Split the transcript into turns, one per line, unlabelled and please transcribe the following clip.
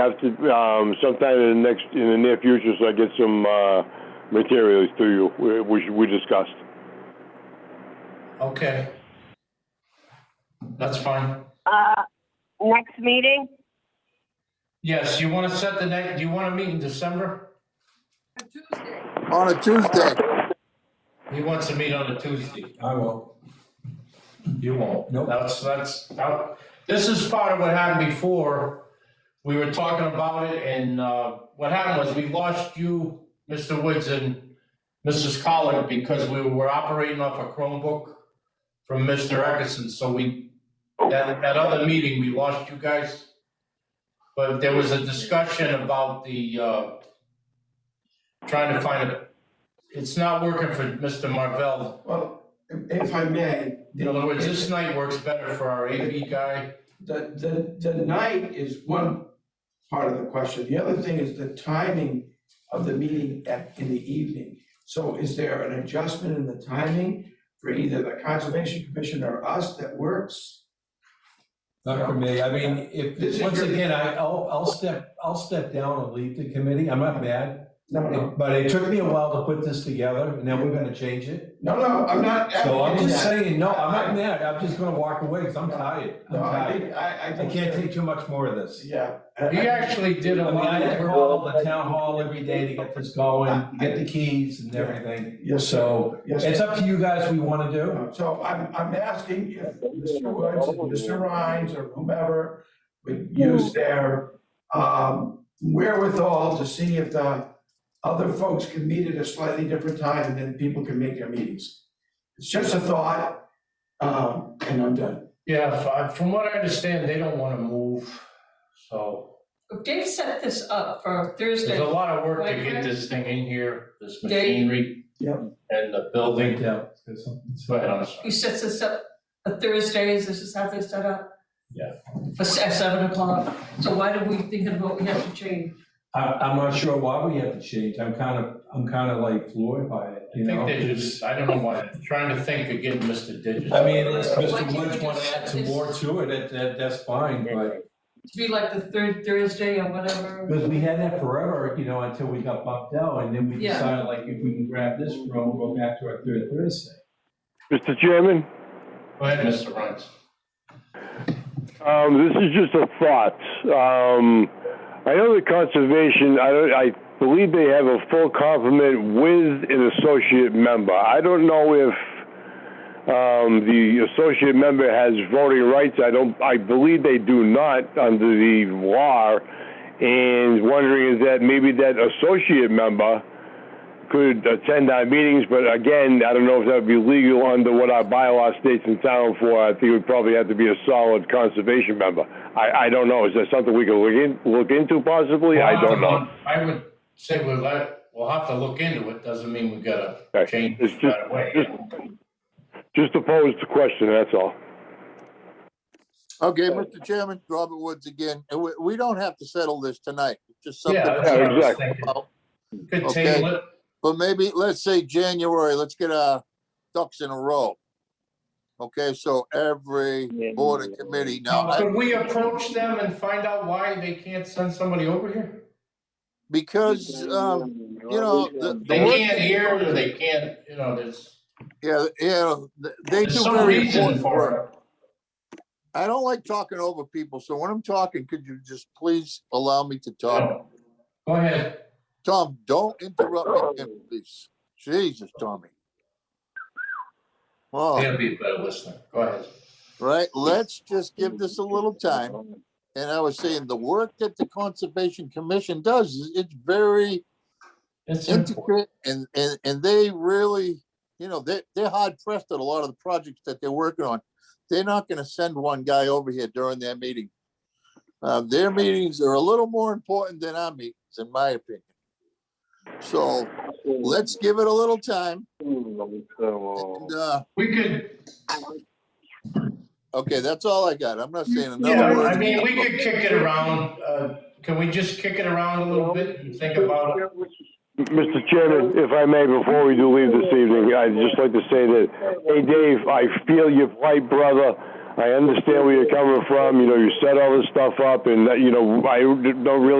Have to, um, sometime in the next, in the near future, so I get some, uh, materials to you, whi- which we discussed.
Okay. That's fine.
Uh, next meeting?
Yes, you want to set the next, do you want to meet in December?
on a Tuesday.
He wants to meet on a Tuesday.
I will.
You won't.
Nope.
That's, that's, that- this is part of what happened before. We were talking about it and, uh, what happened was we lost you, Mr. Woods and Mrs. Collard because we were operating off a Chromebook from Mr. Eckerson, so we, that, that other meeting, we lost you guys. But there was a discussion about the, uh, trying to find a, it's not working for Mr. Marvell
Well, if I may.
in other words, this night works better for our AV guy.
The, the, the night is one part of the question. The other thing is the timing of the meeting at, in the evening. So is there an adjustment in the timing for either the Conservation Commission or us that works?
Not for me, I mean,
This
if,
is
once
your-
again, I, I'll, I'll step, I'll step down and leave the committee, I'm not mad.
No, no,
But it took me a while to put this together, and now we're gonna change it.
no, no, I'm not.
So I'm
advocating
just
that.
saying, no, I'm not mad, I'm just gonna walk away, because I'm tired. I'm
No, I,
tired.
think- I, I.
I can't take too much more of this.
Yeah.
He actually did a
I mean, I
lot
had to
of
call the town hall every day to get this going, get the keys and everything.
Yes,
So
yes.
it's up to you guys, what you wanna do.
So I'm, I'm asking if Mr. Woods, and Mr. Rhines, or whomever would use their um, wherewithal to see if the other folks can meet at a slightly different time, and then people can make their meetings. It's just a thought, um, and I'm done.
Yeah, f- from what I understand, they don't want to move. So
Dave set this up for
there's a
Thursday.
lot of work to get this thing in here, this
Dave?
machinery.
Yep.
And the building.
Yeah. it's- it's-
Go ahead, I'm sorry.
He sets this up for Thursdays, this is how they set up.
Yeah.
For se- at seven o'clock. So why do we think of what we have to change?
I, I'm not sure why we have to change, I'm kind of, I'm kind of like floored by it,
I
you know?
think they just, I don't know why, trying to think of getting Mr. Digits.
I mean, unless
Why
Mr.
can't
Woods
we
wanna
just
add some
this-
more to it, that, that, that's fine, but,
To be like the third Thursday or whatever.
because we had that forever, you know, until we got bumped out, and then we
Yeah.
decided, like, if we can grab this room, go back to our third Thursday.
Mr. Chairman,
Go ahead, Mr. Rhines.
um, this is just a thought. Um, I know the conservation, I don't, I believe they have a full complement with an associate member. I don't know if, um, the associate member has voting rights. I don't, I believe they do not under the law. And wondering is that maybe that associate member could attend our meetings, but again, I don't know if that would be legal under what our bylaw states in town for. I think it would probably have to be a solid conservation member. I, I don't know. Is that something we could look in, look into possibly? I don't know.
I would say we'll, let- we'll have to look into it. Doesn't mean we gotta
Okay.
change
It's
it
just-
right away.
Just to pose the question, that's all.
Okay, Mr. Chairman, Robert Woods again. And we, we don't have to settle this tonight. It's Just something.
Yeah, that's what I was
exactly.
thinking.
about.
Could
Okay.
table it.
But maybe, let's say January, let's get our ducks in a row. Okay, so every board and committee now,
Now,
I-
could we approach them and find out why they can't send somebody over here?
because, um, you know, the,
They
the work,
can't hear, or they can't, you know, there's,
yeah, yeah, th- they
there's
do
some
very
reason
important work.
for
I don't like talking over people, so when I'm talking, could you just please allow me to
it.
talk?
Go ahead.
Tom, don't interrupt me, again, please. Jesus, Tommy. Oh.
They'll be a better listener. Go ahead.
right? Let's just give this a little time. And I was saying, the work that the Conservation Commission does, is it's very
It's important.
intricate and, and, and they really, you know, they, they're hard pressed at a lot of the projects that they're working on. They're not gonna send one guy over here during their meeting. Uh, their meetings are a little more important than our meetings, in my opinion. So let's give it a little time. And, uh,
We could,
okay, that's all I got. I'm not saying
yeah,
another word.
I mean, we could kick it around. Uh, can we just kick it around a little bit and think about it?
Mr. Chairman, if I may, before we do leave this evening, I'd just like to say that, hey, Dave, I feel your plight, brother. I understand where you're coming from, you know, you set all this stuff up and that, you know, I don't really